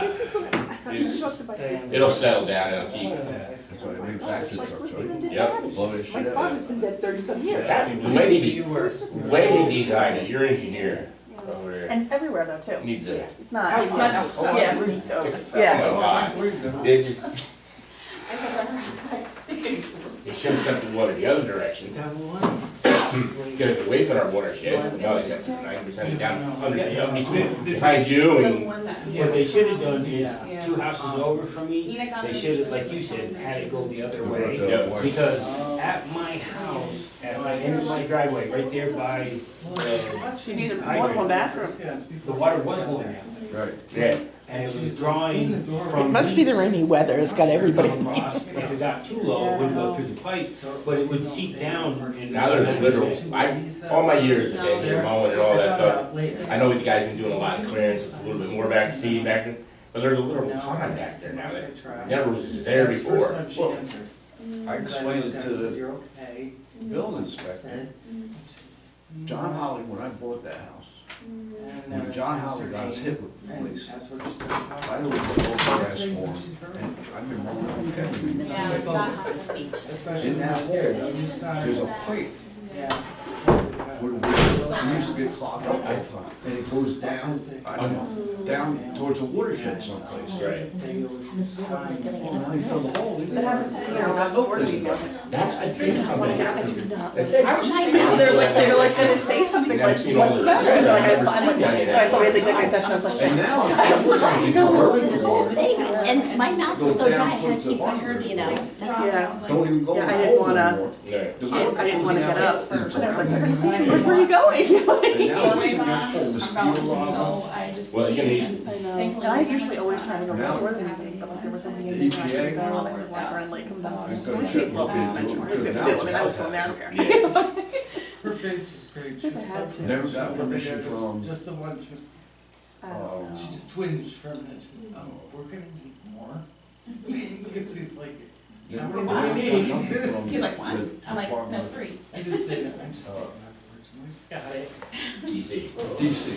This is what I I thought you It's- talked about this. It'll settle down, it'll keep. That's why it leaves Oh, it's action like trucks, listening to right? Yep. daddy. Blow that shit My out. father's been dead thirty some years. That- The way So they, it's just- the way they designed it, your engineer over there And it's everywhere though too. needs a, It's Oh, not, it's it's not- not, it's not yeah. really dope. Yeah. oh god. They just, they should have sent the water the other direction. Get it away from our watershed, no, they sent ninety percent it down under the, up behind you and. What they should have done is, two houses over from me, they should have, like you said, had it go the other uh, way. Because at my house, at my end of my driveway, right there by, uh, You need a- more I than agree. one bathroom. the water was going out, Right. Yeah, and it was drawing from. It must be the leaks rainy weather, it's got everybody. coming across. If it got too low, it wouldn't go through the pipe, but it would seep down and. now there's a literal, I, all my years have been here mowing and all that stuff. I know you guys been doing a lot of clearance, it's a little bit more back, seeding back there, but there's a literal pond back there now that never was there before. Mm-hmm. I explained it to the building inspector, John Holly, when I bought that house, uh, when John Holly got his hit with the police, I was the old grass lawn, and I've been mowing it, okay? Yeah, it's not hot speech. In that hole, there's a pipe where we, we used to get clogged up all the time, and it goes down, I don't know, down towards a watershed someplace. Right, Well, now you fill the hole, you That happens to me when I was working. that's, I think something happened. That's it. I was just thinking, they're like, they're like gonna say something Never like, what's seen the all matter? this. And they're like, Never I'm fine. seen any of And that. I saw we had the executive session, I was like, And now, I'm trying to This is the whole thing, and my mouth is so Go down dry, I had towards to the keep my hair, you know. yeah. Don't even go Yeah, in the I didn't hole wanna- anymore. No. The I water didn't wanna goes get down up. there. But I was like, they're gonna say something, where are you going? Like- And now it's sitting there full of steel logs. Well, you need, I know. And I usually always try to go Now- towards anything, but like there was something The in the ground, EPA? and I was like, around Lake comes out. I'm Which gonna we check love what that they much. do. We're gonna Now do it, it's and I was all going there, I don't happened. care. yeah, Her face is great. If I had to. Never got permission from, Just the one, she was- I don't Um, know. she just twinged from it. She was, Oh, we're gonna need more. Because he's like, never Why? got nothing from. He's like, what? the I'm like, no, Department three. I just say that, I'm just Uh. saying afterwards. and I just Got it. easy. of DC,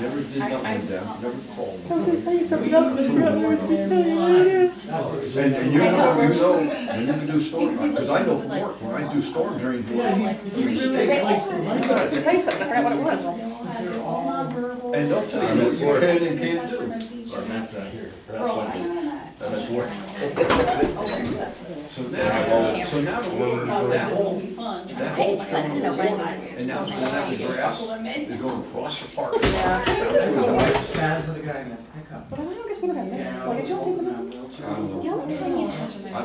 never did nothing with them, never called them. Oh, And, and you know, you know, and you can do storm, because I know from work, when I do storm drain, boy, you stay like, you Let me gotta, Tell you something, I forgot what it was. and they'll tell you what you can and can't do. Our map's not here. Perhaps I- I must work. So now, so now the water, that hole, that hole formed the water, and now it's going out the grass, it's going across the park. Bad for the guy in the pickup. But I guess what about minutes? Why did y'all do the minutes? I don't know. I'll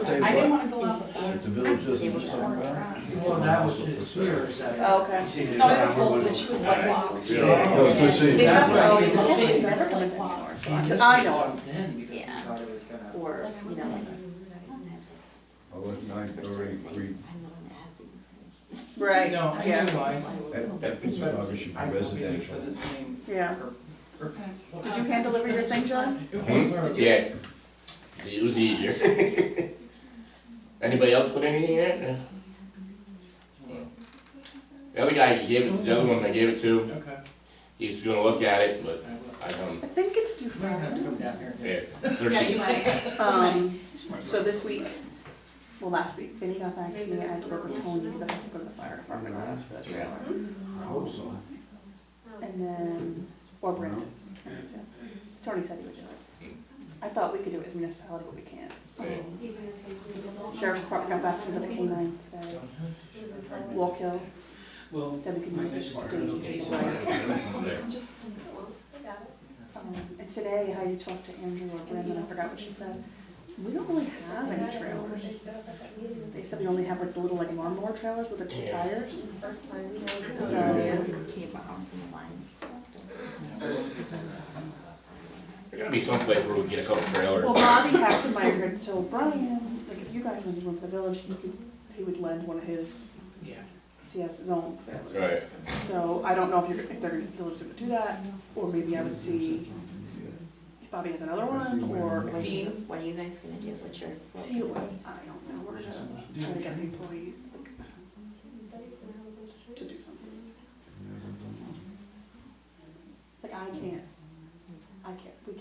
tell you I didn't what, wanna go off of. if the village doesn't do something about it. Well, that was his fear, is that. Oh, okay. No, it was cold, and she was like, wow. You know, No, it's Oh, good seeing They have you. their own It's independent never medical been examiner, flowers. I know Jumped in because he Yeah. thought it was gonna- or, you know, I went nine thirty, three, right, No, I yeah, knew why. that, that piece of rubbish is I feel bad residential. for the same. yeah. Did you hand deliver your thing, John? Hmm? Yeah. It was easier. Anybody else put anything in it? The other guy he gave it, the other one I gave it to, Okay. he was gonna look at it, but I will. I don't, I think it's due You might have to Friday. come down here. yeah. Yeah, you Thirteen. might. Um, so this week, well, last week, Vinny got back to me, I had to work with Tony because I had to go to the fire department, I asked for that trailer. I hope so. And then, or Brendan. Tony said he would do it. I thought we could do it as municipality, but we can't. Yeah. Sheriff's Department got back to me with the canines today, Walk Hill, Well, said we can use it for days. There. Um, And today, how you talked to Andrew or Brendan, I forgot what she said, we don't really have any trailers. They said we only have like the little like lawnmower trailers with the two Yeah. tires. There gotta be someplace where we can get a couple trailers. Well, Bobby has some migrants, so Brian, like if you guys was from the village, he could, he would lend one of his, Yeah. he has his own trailers. Right. So I don't know if you're, if they're, the village would do that, or maybe I would see if Bobby has another one, or Elaine. What are you guys gonna do? What's your? See, what- I don't know, we're gonna try to get the employees to do something. Like I can't,